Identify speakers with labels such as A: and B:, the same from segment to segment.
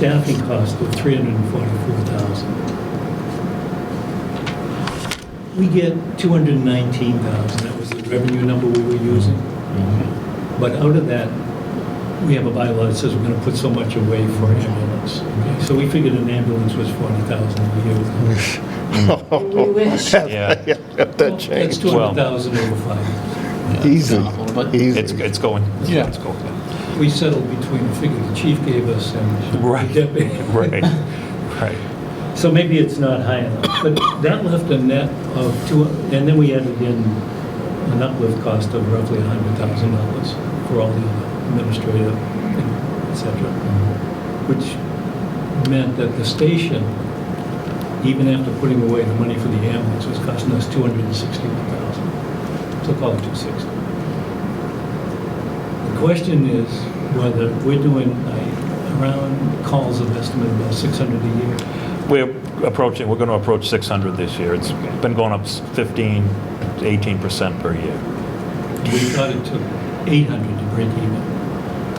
A: staffing cost of 344,000. We get 219,000, that was the revenue number we were using. But out of that, we have a bylaw that says we're going to put so much away for ambulance. Okay, So we figured an ambulance was 40,000 a year.
B: We wish.
C: Yeah,
D: Got that
A: That's
D: changed.
A: 200,000 over five years.
D: Easy,
E: But
C: it's,
D: easy.
C: it's going.
E: Yeah.
C: It's going down.
A: We settled between the figure the chief gave us and
C: Right.
A: the deputy.
C: Right, right.
A: So maybe it's not high enough, but that left a net of two, and then we added in an uplift cost of roughly $100,000 for all the administrative, et cetera, which meant that the station, even after putting away the money for the ambulance, was costing us $261,000, so call it 260. The question is whether we're doing uh, around calls of estimate about 600 a year.
C: We're approaching, we're going to approach 600 this year. It's been going up s- 15, 18% per year.
A: We thought it took 800 to break even.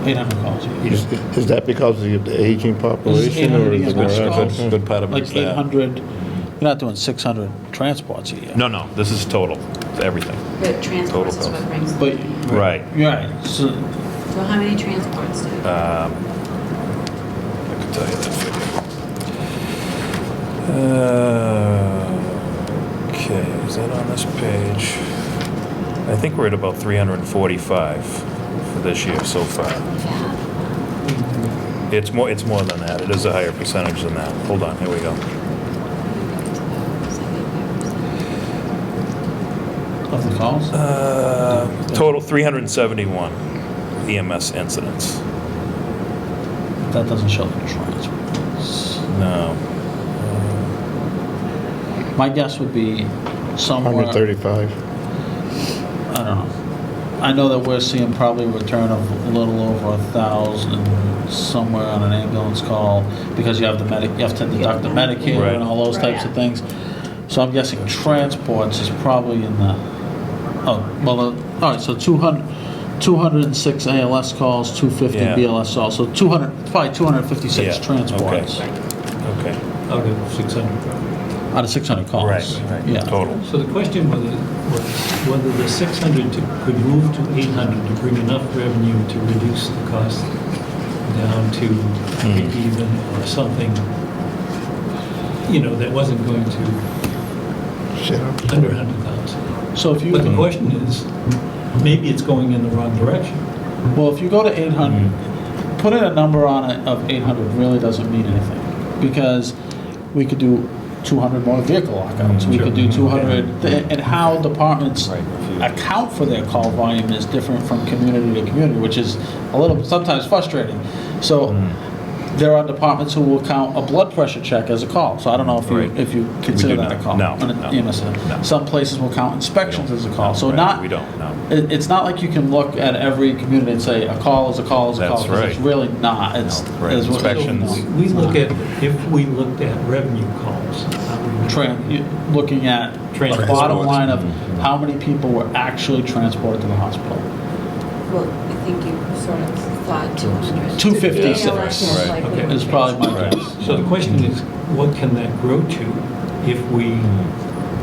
E: 800 calls.
D: Is is that because of the aging
E: This is
D: population? or
E: 800
D: is
E: against
D: it
E: which calls.
C: Good- good part of it
E: Like
C: is that.
E: 800, you're not doing 600 transports a year.
C: No, no, this is total, everything.
B: The transports is
C: Total
B: what brings
E: But.
B: them in.
C: Right.
E: Right, so,
B: So how many transports do you have?
C: I can tell you that figure. Uh, Okay, is that on this page? I think we're at about 345 for this year so far. It's more, it's more than that. It is a higher percentage than that. Hold on, here we go.
E: of the calls?
C: Uh, Total 371 EMS E incidents.
E: That doesn't show the transports.
C: No.
E: My guess would be somewhere.
D: 135?
E: I don't know. I know that we're seeing probably a return of a little over a thousand somewhere on an ambulance call because you have the medic, you have to deduct the Medicare
C: Right.
E: and all those types of things. So I'm guessing transports is probably in the, oh, well, uh, all right, so 200, 206 ALS calls, 250
C: Yeah.
E: BLS calls, so 200, probably 256
C: Yeah,
E: transports
C: Okay.
A: Out of 600 probably.
E: out of 600 calls. Yeah.
C: Total.
A: So the question was, was whether the 600 to- could move to 800 to bring enough revenue to reduce the cost down to
C: Hmm.
A: break even or something, you know, that wasn't going to
D: Shit, I'm
A: under 100,000.
E: So if you.
A: But the question is, maybe it's going in the wrong direction.
E: Well, if you go to
C: Mm-hmm.
E: 800, putting a number on it of 800 really doesn't mean anything, because we could do 200 motor vehicle lockouts,
C: Mm-hmm.
E: we could do 200, th- and how departments account for their call volume is different from community to community, which is a little, sometimes frustrating. So
C: Mm-hmm.
E: there are departments who will count a blood pressure check as a call, so I don't know if you,
C: Right.
E: if you consider
C: do
E: that a
C: not.
E: call.
C: No,
E: on a
C: no,
E: EMS.
C: no.
E: Some places will count inspections as a call, so
C: Right,
E: not.
C: We don't, no.
E: It, it's not like you can look at every community and say, a call is a call is a call.
C: That's
E: 'cause It's
C: right.
E: really not, it's.
C: No, right,
E: it's what-
C: inspections.
A: So We we look at, if we looked at revenue calls, how would we-
E: Tran, you- looking at the
A: Transports.
E: bottom line of how many people were actually transported to the hospital.
B: Well, I think you sort of thought 200.
E: 256.
B: Yeah, that's
C: Right.
B: likely.
A: Okay.
E: Is probably my guess.
A: So the question is, what can that grow to if we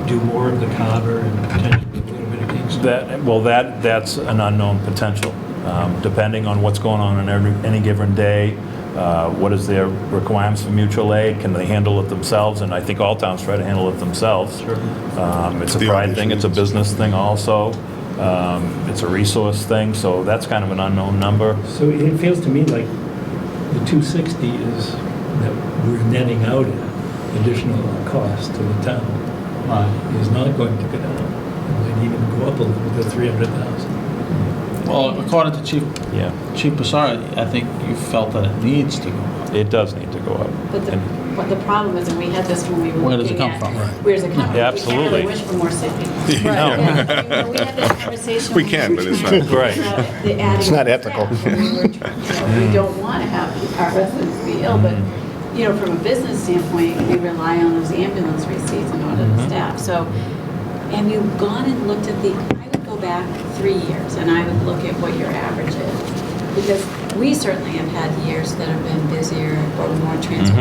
A: do more of the Carver and potentially a little bit of Kingston?
C: That, well, that, that's an unknown potential, um, depending on what's going on in every- any given day. uh, What is their requirements for mutual aid? Can they handle it themselves? And I think all towns try to handle it themselves.
A: Sure.
C: Um, It's a
D: The
C: pride thing,
D: obvious
C: it's a
D: reasons.
C: business thing also. Um, It's a resource thing, so that's kind of an unknown number.
A: So it feels to me like the 260 is that we're netting out at additional cost to the town
E: Right.
A: is not going to go down. It might even go up a little to 300,000.
E: Well, according to Chief,
C: Yeah,
E: Chief Passari, I think you felt that it needs to go up.
C: it does need to go up.
B: But the,
C: And-
B: but the problem is, and we had this when we were
E: Where does it
B: looking
E: come
B: at-
E: from? Right.
B: Where does it come from?
C: Yeah,
B: We can't really
C: absolutely.
B: wish for more sick people.
C: Right. No.
B: Yeah, I mean, We had that conversation.
F: We
B: when
F: can,
B: were
F: but it's
B: trying
F: not-
B: to
C: Right.
B: figure out the adding
D: It's not
B: of
D: ethical.
B: staff, and we were trying- you know, We don't want to have our residents be ill, but,
C: Mm-hmm.
B: you know, from a business standpoint, we rely on those ambulance receipts in order
C: Mm-hmm.
B: to staff. So have you gone and looked at the, I would go back three years and I would look at what your average is. because we certainly have had years that have been busier or more transportation